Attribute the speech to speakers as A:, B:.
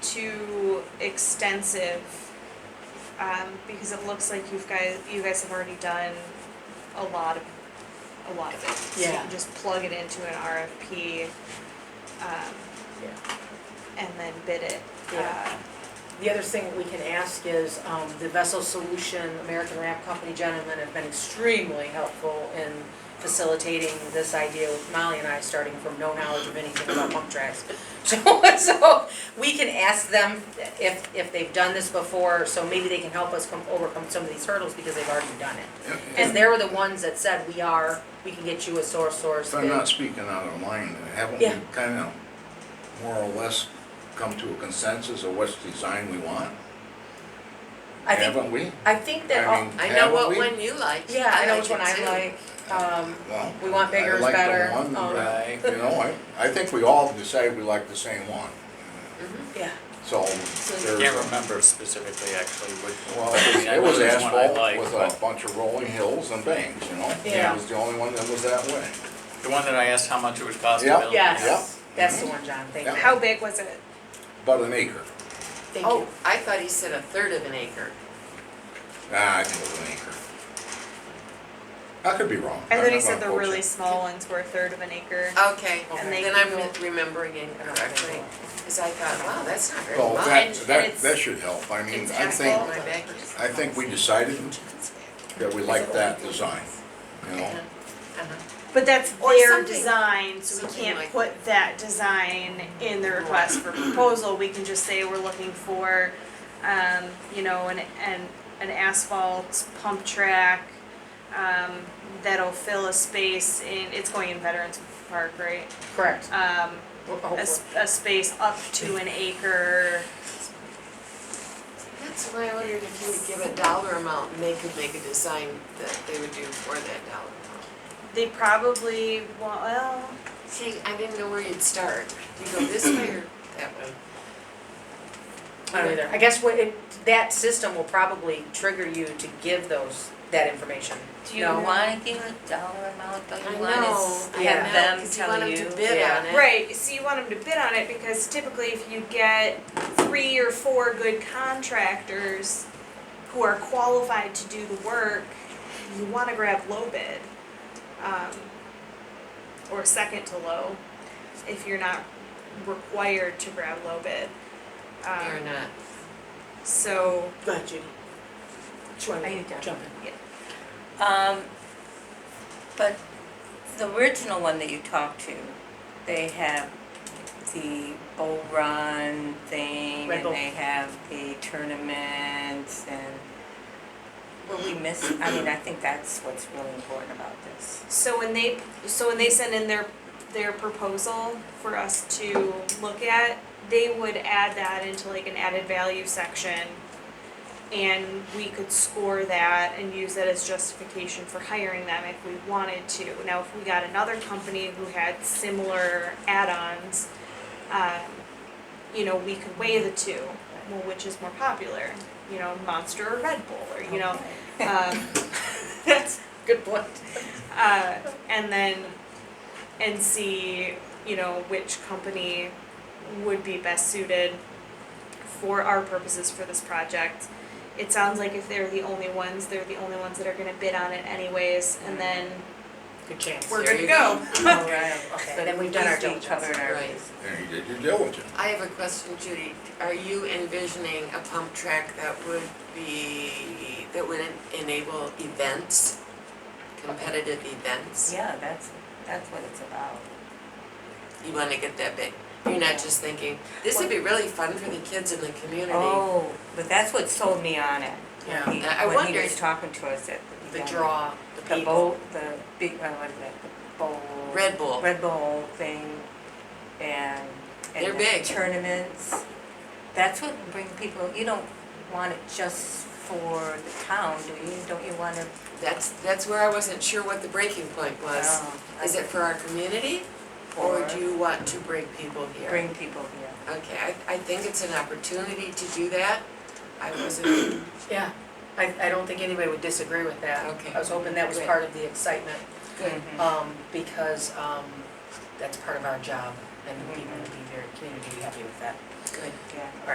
A: too extensive, um, because it looks like you've guys, you guys have already done a lot of, a lot of it. So you
B: Yeah.
A: can just plug it into an RFP, um,
B: Yeah.
A: and then bid it. Uh,
B: Yeah. The other thing we can ask is, um, the Vessel Solution, American Ramp Company gentlemen have been extremely helpful in facilitating this idea with Molly and I, starting from no knowledge of anything about pump tracks. So, so we can ask them if, if they've done this before, so maybe they can help us come, overcome some of these hurdles because they've already done it. And they were the ones that said, we are, we can get you a source source.
C: If I'm
B: bid."
C: not speaking out of line, haven't
B: Yeah.
C: we kind of more or less come to a consensus of what design we want?
B: I think,
C: Haven't we?
B: I think that,
C: I
B: all-
C: mean,
D: I know
C: haven't
D: what
C: we?
D: one you like.
B: yeah, I know which
D: it
B: one
D: too.
B: I like, um,
C: Well,
B: We want bigger
C: I
B: is
C: like the
B: better.
C: one
B: Oh,
C: that, You know, I, I think we all decided we like the same one,
B: yeah.
C: so
D: So-
E: I
C: there's.
E: Can't remember specifically actually which.
C: Well,
E: I mean, I
C: it was
E: know there's one I
C: asphalt
E: like,
C: with
E: but
C: a bunch of rolling hills and banks, you know?
B: Yeah.
C: It was the only one that was that way.
E: The one that I asked how much it would cost to
C: Yeah.
E: build.
B: Yes, that's the one, John, thank
C: Yeah.
B: you.
A: How big was it?
C: About an acre.
B: Thank
D: Oh,
B: you.
D: I thought he said a third of an acre.
C: Ah, I think it was an acre. I could be wrong.
A: I
C: I'm
A: thought
C: not
A: he said the
C: gonna quote you.
A: really small ones were a third of an acre.
D: Okay,
B: And
A: they
D: then I'm
A: Google-
D: re- remembering incorrectly, because I thought, wow, that's not very
C: Well,
D: long.
C: that,
A: And- and
C: that,
A: it's-
C: that should help. I mean,
D: It's
C: I
D: asphalt,
C: think,
D: my back is-
C: I think we decided that we liked that design, you know?
D: Uh-huh.
A: But that's
D: Or
A: their
D: something-
A: design, so we
D: something
A: can't
D: like-
A: put that design in the request for proposal, we can just say we're looking for, um, you know, an, an, an asphalt pump track, um, that'll fill a space in, it's going in Veterans Park, right?
B: Correct.
A: Um,
B: Ho-
A: a,
B: hopefully.
A: s- a space up to an acre,
D: That's why I wondered if you would give a dollar amount and they could make a design that they would do for that dollar amount.
A: they probably, want- well,
D: See, I didn't know where you'd start. Do you go this way or that way?
B: I don't either. I guess what, it- that system will probably trigger you to give those, that information.
F: Do you
B: No?
F: wanna give a dollar amount, but
D: I
F: you want
D: know,
F: to
D: I
B: yeah.
F: have
D: know,
F: them
D: because you want them
F: tell you?
D: to bid
B: yeah.
D: on it.
A: Right, so you want them to bid on it because typically if you get three or four good contractors who are qualified to do the work, you wanna grab low bid. Um, or second to low, if you're not required to grab low bid.
D: Or
A: Um,
D: not.
A: so,
B: Go ahead, Judy. Sure,
F: Are you done?
B: jump in.
F: Um, but the original one that you talked to, they have the bull run thing
B: Red
F: and
B: Bull.
F: they have the tournaments and were we miss, I mean, I think that's what's really important about this.
A: so when they, so when they send in their, their proposal for us to look at, they would add that into like an added value section. And we could score that and use that as justification for hiring them if we wanted to. Now, if we got another company who had similar add-ons, um, you know, we could weigh the two. Well, which is more popular, you know, Monster or Red Bull, or you know, um, that's
B: Good point.
A: uh, and then and see you know which company would be best suited for our purposes for this project. It sounds like if they're the only ones, they're the only ones that are going to bid on it anyways, and then
B: Good chance.
A: we're
D: There
A: good to
D: you
A: go.
B: All right, okay,
D: But
B: then we've done our
F: At least
B: diligence.
F: we covered our
D: Right.
F: bases.
C: And you did your diligence.
D: I have a question, Judy. Are you envisioning a pump track that would be, that would en- enable events? Competitive events?
F: Yeah, that's, that's what it's about.
D: You wanna get that big? You're not just thinking, this would be really fun for the kids in the community.
F: Oh, but that's what sold me on it.
B: Yeah.
F: He-
D: I- I
F: When he
D: wondered-
F: was talking to us at the.
D: The
F: beginning.
D: draw, the
F: The
D: people.
F: bowl, the big, uh, what is that, the bowl?
D: Red Bull.
F: Red Bull thing, and,
D: They're
F: and the
D: big.
F: tournaments. That's what bring people, you don't want it just for the town, do you? Don't you want it?
D: That's, that's where I wasn't sure what the breaking point was.
F: um,
D: Is it for our community? Or do you want to bring people here?
F: Bring people here.
D: Okay, I, I think it's an opportunity to do that. I wasn't,
B: Yeah, I, I don't think anybody would disagree with that.
D: Okay.
B: I was hoping that was
D: Good.
B: part of the excitement,
D: good.
B: um, because, um, that's part of our job, and people would be very, community would be happy with that.
D: Good.
F: Yeah.